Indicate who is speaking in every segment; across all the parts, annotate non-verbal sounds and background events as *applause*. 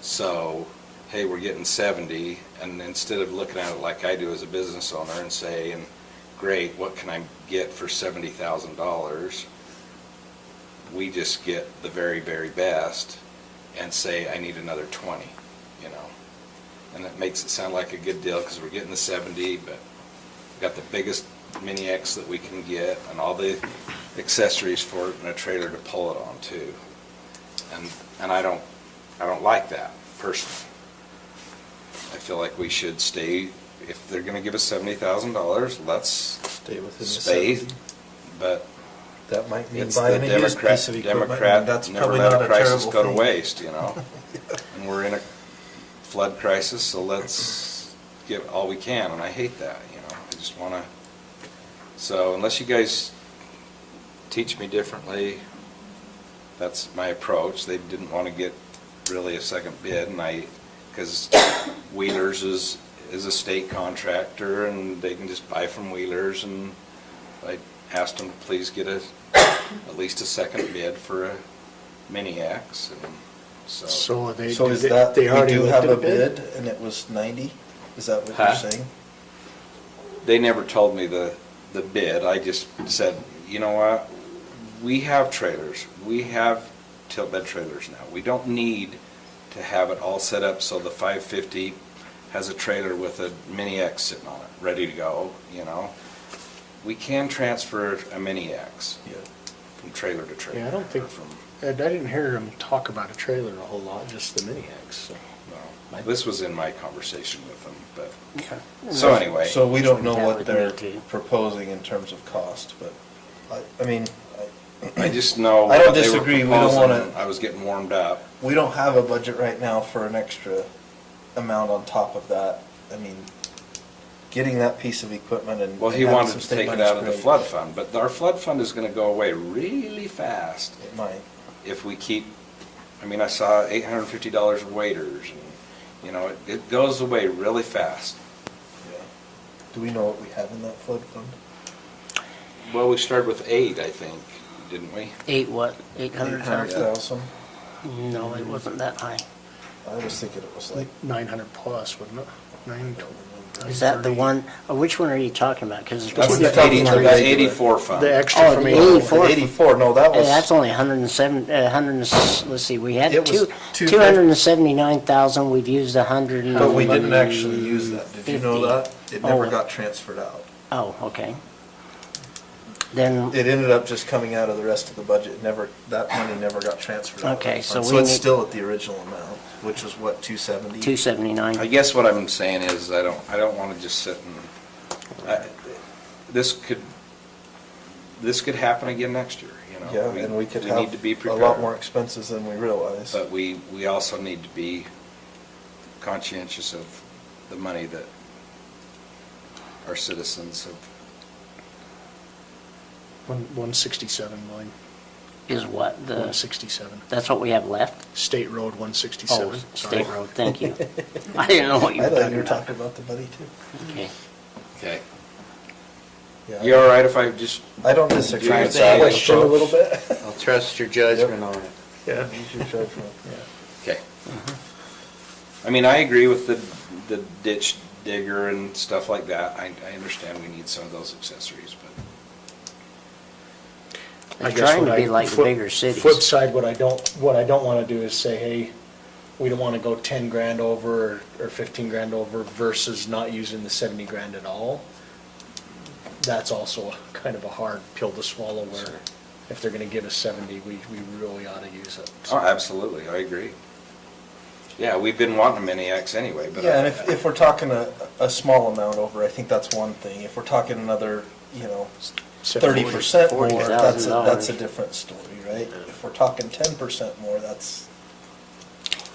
Speaker 1: So, hey, we're getting seventy, and instead of looking at it like I do as a business owner and saying, great, what can I get for seventy thousand dollars? We just get the very, very best and say, I need another twenty, you know? And that makes it sound like a good deal, because we're getting the seventy, but we got the biggest mini X that we can get and all the accessories for it and a trailer to pull it on too. And, and I don't, I don't like that personally. I feel like we should stay, if they're gonna give us seventy thousand dollars, let's
Speaker 2: Stay within the
Speaker 1: space,
Speaker 2: seventy.
Speaker 1: but
Speaker 2: That might mean
Speaker 1: it's the
Speaker 2: buying a used
Speaker 1: Democrat,
Speaker 2: piece of equipment, and
Speaker 1: Democrat,
Speaker 2: that's
Speaker 1: never
Speaker 2: probably
Speaker 1: let
Speaker 2: not
Speaker 1: a
Speaker 2: a
Speaker 1: crisis
Speaker 2: terrible
Speaker 1: go to
Speaker 2: thing.
Speaker 1: waste, you
Speaker 2: *laughs*
Speaker 1: know? And we're in a flood crisis, so let's give all we can, and I hate that, you know? I just wanna, so unless you guys teach me differently, that's my approach. They didn't wanna get really a second bid, and I, because Wheelers is, is a state contractor, and they can just buy from Wheelers, and I asked them to please get a, at least a second bid for a mini X, and so.
Speaker 3: So they,
Speaker 2: So is
Speaker 3: they-
Speaker 2: that, we
Speaker 3: they already
Speaker 2: do
Speaker 3: looked
Speaker 2: have
Speaker 3: at
Speaker 2: a
Speaker 3: a
Speaker 2: bid
Speaker 3: bid?
Speaker 2: and it was ninety? Is that what
Speaker 1: Huh?
Speaker 2: you're saying?
Speaker 1: They never told me the, the bid, I just said, you know what, we have trailers, we have tilt bed trailers now, we don't need to have it all set up so the five fifty has a trailer with a mini X sitting on it, ready to go, you know? We can transfer a mini X
Speaker 2: Yeah.
Speaker 1: from trailer to trailer.
Speaker 3: Yeah, I don't
Speaker 1: or
Speaker 3: think,
Speaker 1: From
Speaker 3: I I didn't hear them talk about a trailer a whole lot, just the mini X,
Speaker 1: No, this was in my conversation with them, but,
Speaker 3: Hmm.
Speaker 1: so anyway.
Speaker 2: So we don't know
Speaker 4: That
Speaker 2: what
Speaker 4: would
Speaker 2: they're
Speaker 4: need to-
Speaker 2: proposing in terms of cost, but I, I mean, I-
Speaker 1: I just know.
Speaker 2: I don't
Speaker 1: what they were
Speaker 2: disagree, we don't
Speaker 1: proposing,
Speaker 2: wanna-
Speaker 1: I was getting warmed up.
Speaker 2: we don't have a budget right now for an extra amount on top of that. I mean, getting that piece of equipment and.
Speaker 1: Well, he
Speaker 2: having
Speaker 1: wanted
Speaker 2: some
Speaker 1: to
Speaker 2: state
Speaker 1: take it
Speaker 2: money's
Speaker 1: out of the
Speaker 2: great.
Speaker 1: flood fund, but our flood fund is gonna go away really fast
Speaker 2: It might.
Speaker 1: if we keep, I mean, I saw eight hundred and fifty dollars of waiters and, you know, it, it goes away really fast.
Speaker 2: Yeah. Do we know what we have in that flood fund?
Speaker 1: Well, we started with eight, I think, didn't we?
Speaker 4: Eight what, eight hundred thousand?
Speaker 2: 800,000?
Speaker 4: No, it wasn't that high.
Speaker 2: I was thinking it was
Speaker 3: like
Speaker 2: like,
Speaker 3: nine hundred plus, wouldn't it? Nine twelve.
Speaker 4: Is that the one, uh, which one are you talking about? Cause.
Speaker 1: That's
Speaker 2: one
Speaker 1: the
Speaker 2: you're talking
Speaker 1: eighty,
Speaker 2: about
Speaker 1: the
Speaker 2: regular.
Speaker 1: eighty-four fund.
Speaker 3: The extra
Speaker 4: Oh,
Speaker 3: from
Speaker 4: the
Speaker 3: eight.
Speaker 4: 84.
Speaker 2: eighty-four, no, that
Speaker 4: Hey,
Speaker 2: was.
Speaker 4: eh, that's only a hundred and seven, a hundred and, s- let's see, we had
Speaker 2: It was
Speaker 4: two,
Speaker 2: two
Speaker 4: two hundred and seventy-nine thousand, we've used a hundred and.
Speaker 2: But we didn't actually use that, did you know
Speaker 4: fifty.
Speaker 2: that? It never
Speaker 4: Oh.
Speaker 2: got transferred out.
Speaker 4: Oh, okay. Then,
Speaker 2: It ended up just coming out of the rest of the budget, It never, that money never got transferred out. of
Speaker 4: Okay,
Speaker 2: the
Speaker 4: so
Speaker 2: fund.
Speaker 4: we
Speaker 2: it's
Speaker 4: need-
Speaker 2: still at the original amount, which was what, two seventy?
Speaker 4: two seventy-nine.
Speaker 1: I guess what I'm saying is, I don't, I don't wanna just sit and, I- this could, this could happen again next year, you know?
Speaker 2: Yeah, and we could
Speaker 1: need to be
Speaker 2: have a
Speaker 1: prepared.
Speaker 2: lot more expenses than we realize.
Speaker 1: But we, we also need to be conscientious of the money that our citizens have,
Speaker 3: One, one sixty-seven, William,
Speaker 4: Is what,
Speaker 3: one
Speaker 4: the,
Speaker 3: sixty-seven,
Speaker 4: that's what we have left?
Speaker 3: State Road one
Speaker 4: Oh,
Speaker 3: sixty-seven, sorry.
Speaker 4: State road,
Speaker 2: *laughs*
Speaker 4: thank you. I didn't know what you
Speaker 2: I
Speaker 4: were
Speaker 2: thought
Speaker 4: talking
Speaker 2: you were
Speaker 4: about.
Speaker 2: talking about the money too.
Speaker 4: Okay.
Speaker 1: okay?
Speaker 2: Yeah.
Speaker 1: You all right if I just,
Speaker 2: I don't disagree
Speaker 1: Do you
Speaker 2: with
Speaker 1: think
Speaker 2: that
Speaker 1: the
Speaker 2: question a little bit. *laughs*
Speaker 5: I'll trust your judgment on it.
Speaker 3: Yeah.
Speaker 2: Use your judgment.
Speaker 1: okay.
Speaker 2: Mm-hmm.
Speaker 1: I mean, I agree with the, the ditch digger and stuff like that. I, I understand we need some of those accessories, but.
Speaker 4: They're
Speaker 3: I guess
Speaker 4: trying to
Speaker 3: what
Speaker 4: be
Speaker 3: I-
Speaker 4: like
Speaker 3: flip-
Speaker 4: bigger cities.
Speaker 3: Flip side, what I don't, what I don't wanna do is say, hey, we don't wanna go ten grand over or fifteen grand over versus not using the seventy grand at all. That's also kind of a hard pill to swallow where if they're gonna give us seventy, we, we really ought to use it.
Speaker 1: Oh, absolutely, I agree. Yeah, we've been wanting a mini X anyway, but.
Speaker 2: *laughs* Yeah, and if, if we're talking a, a small amount over, I think that's one thing. If we're talking another, you know,
Speaker 3: Except
Speaker 2: thirty percent more,
Speaker 4: forty- forty
Speaker 2: that's a,
Speaker 4: thousand
Speaker 2: that's a
Speaker 4: dollars.
Speaker 2: different story, right? If we're talking ten percent more, that's,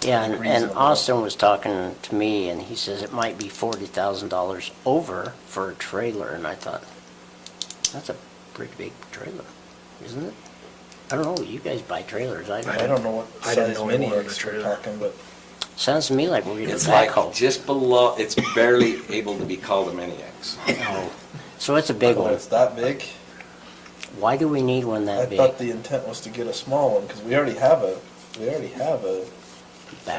Speaker 4: Yeah, and- and
Speaker 2: reasonable.
Speaker 4: Austin was talking to me, and he says it might be forty thousand dollars over for a trailer, and I thought, that's a pretty big trailer, isn't it? I don't know, you guys buy trailers, I
Speaker 2: I
Speaker 4: don't.
Speaker 2: don't know what
Speaker 3: I didn't
Speaker 2: size
Speaker 3: know
Speaker 2: mini
Speaker 3: more of a
Speaker 2: X we're
Speaker 3: trailer.
Speaker 2: talking, but
Speaker 4: Sounds to me like we're getting a
Speaker 1: It's like
Speaker 4: backhoe.
Speaker 1: just below, it's barely able to be called a mini X.
Speaker 4: Oh, So it's a big
Speaker 2: Oh,
Speaker 4: one.
Speaker 2: It's that big?
Speaker 4: Why do we need one
Speaker 2: I
Speaker 4: that big?
Speaker 2: thought the intent was to get a small one, because we already have a, we already have a